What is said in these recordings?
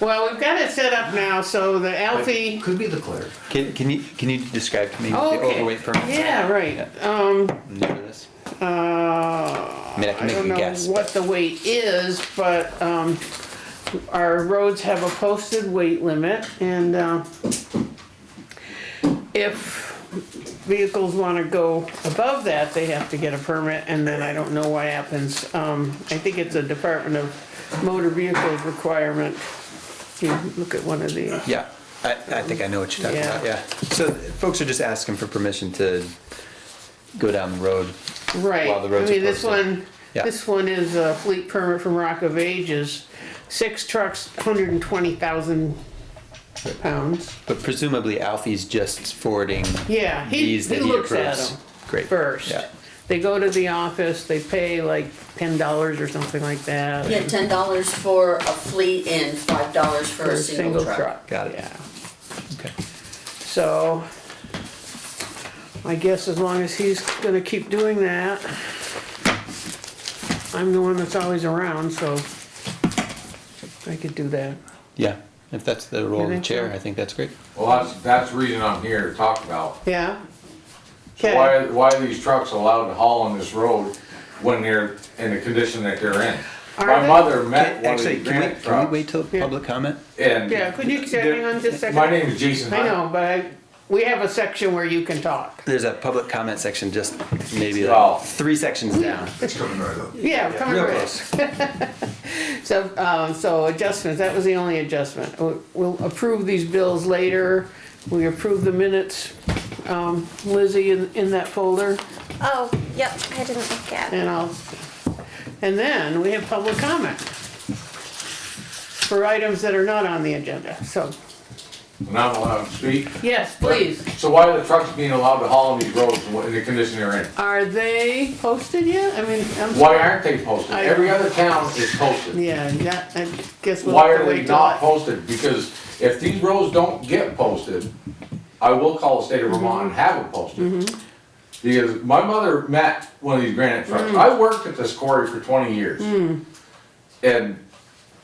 Well, we've got it set up now, so the Alfie, Could be the clerk. Can, can you, can you describe to me Oh, what the okay. overweight permit? is? yeah, right. Um, I'm new to this. uh, mean, I can I make don't a know guess, what the weight is, but, um, our roads have a posted weight limit and, uh, if vehicles wanna go above that, they have to get a permit and then I don't know what happens. Um, I think it's a Department of Motor Vehicles requirement. You look at one of these. Yeah, I, I think I know what you're talking Yeah. about, yeah. So folks are just asking for permission to go down the road. Right, while the I roads are mean, this posted. one, Yeah. this one is a fleet permit from Rock of Ages, six trucks, hundred and twenty thousand pounds. But presumably Alfie's just forwarding Yeah, he, these he that he looks at approves. them Great. first. Yeah. They go to the office, they pay like ten dollars or something like that. Yeah, ten dollars for a fleet and five dollars for a single truck. Got it. Yeah, Okay. so I guess as long as he's gonna keep doing that, I'm the one that's always around, so I could do that. Yeah, if that's the role of the think so? chair, I think that's great. Well, that's, that's the reason I'm here to talk about. Yeah. So Okay. why, why are these trucks allowed to haul on this road when they're in the condition that they're in? Are My they? mother met one of Actually, the can granite we, can we wait trucks. till Yeah. public comment? and Yeah, could you they're- hang on just a second? My name is Jason I Hunt. know, but I, we have a section where you can talk. There's a public comment section just maybe Oh. like three sections down. It's coming right up. Yeah, come Real right. close. So, um, so adjustments, that was the only adjustment. We'll- We'll approve these bills later. We approve the minutes, um, Lizzie in, in that folder Oh, yep, I didn't look at it. and I'll, and then we have public comment for items that are not on the agenda. So, And I'm allowed to speak. yes, please. So why are the trucks being allowed to haul on these roads in the condition they're in? Are they posted yet? I mean, I'm. Why aren't they posted? I- Every other town is posted. Yeah, that, I guess we'll Why have are to they wait till. not I- posted? Because if these roads don't get posted, I will call the state of Vermont and have them posted. Because my mother met one of these granite trucks. I worked at this quarry for twenty years. And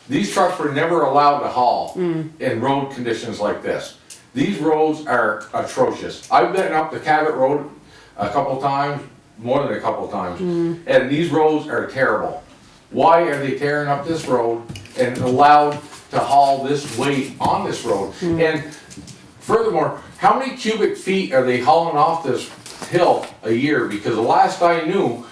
these trucks were never allowed to haul in road conditions like this. These roads are atrocious. I've been up the Cabot Road a couple times, more than a couple times, and these roads are terrible. Why are they tearing up this road and allowed to haul this weight on this road? And furthermore, how many cubic feet are they hauling off this hill a year? Because the last I knew,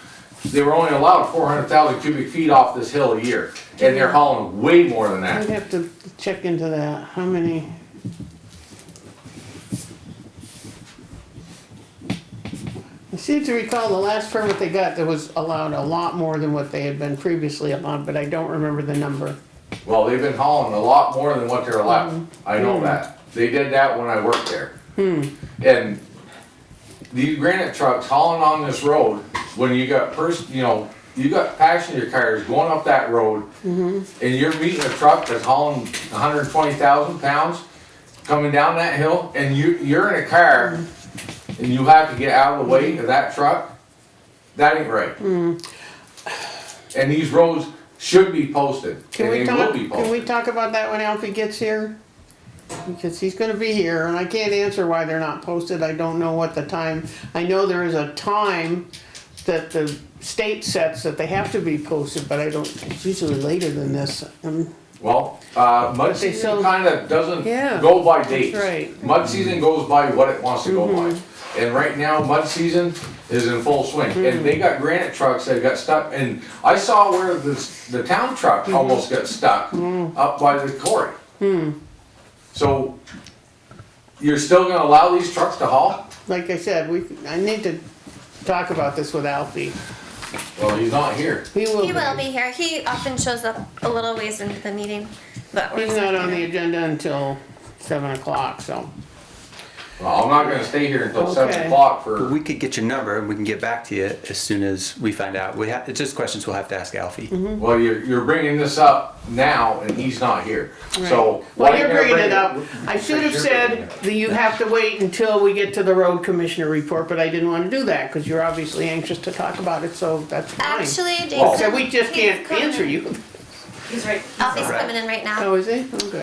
they were only allowed four hundred thousand cubic feet off this hill a year, and they're hauling way more than I'd that. have to check into that, how many? I seem to recall the last permit they got, that was allowed a lot more than what they had been previously allowed, but I don't remember the number. Well, they've been hauling a lot more than what they're allowed, I know that. They did that when I worked there. And these granite trucks hauling on this road, when you got pers, you know, you got passenger cars going up that road, and Mm-hmm. you're meeting a truck that's hauling hundred and twenty thousand pounds, coming down that hill, and you, you're in a car, Mm-hmm. and you have to get out of the way of that truck, that ain't right. And these roads should be posted, Mm-hmm. Can and we they talk, will can be we posted. talk about that when Alfie gets here? Because he's gonna be here, and I can't answer why they're not posted, I don't know what the time, I know there is a time that the state sets that they have to be posted, but I don't, it's usually later than this. Um, Well, uh, mud But they season still- kinda doesn't Yeah, go by dates. right. Mud Mm-hmm. season goes by what it wants to go by. And right now, mud season is in full swing, and Mm-hmm. they got granite trucks that got stuck, and I saw where the, the town truck Mm-hmm. almost got stuck up by the quarry. Hmm. So, you're still gonna allow these trucks to haul? Like I said, we, I need to talk about this with Alfie, Well, he's not here. he will He will be, be here. He often shows up a little ways into the meeting, but we're he's not on the agenda until seven o'clock, so. Well, I'm not gonna stay here until Okay. seven o'clock But for, we could get your number and we can get back to you as soon as we find out. We have, it's just questions we'll have to ask Alfie. Mm-hmm. well, you're, you're bringing this up now, and he's not here, so. why Well, you you're gonna bringing bring it up. I should have said that you have to wait until we get to the road commissioner report, but I didn't wanna do that, cause you're obviously anxious to talk about it, so that's fine. Actually, Well- Jason. So we just he's can't coming answer in. you. He's right. Alfie's coming in right now. Oh, is he? Okay.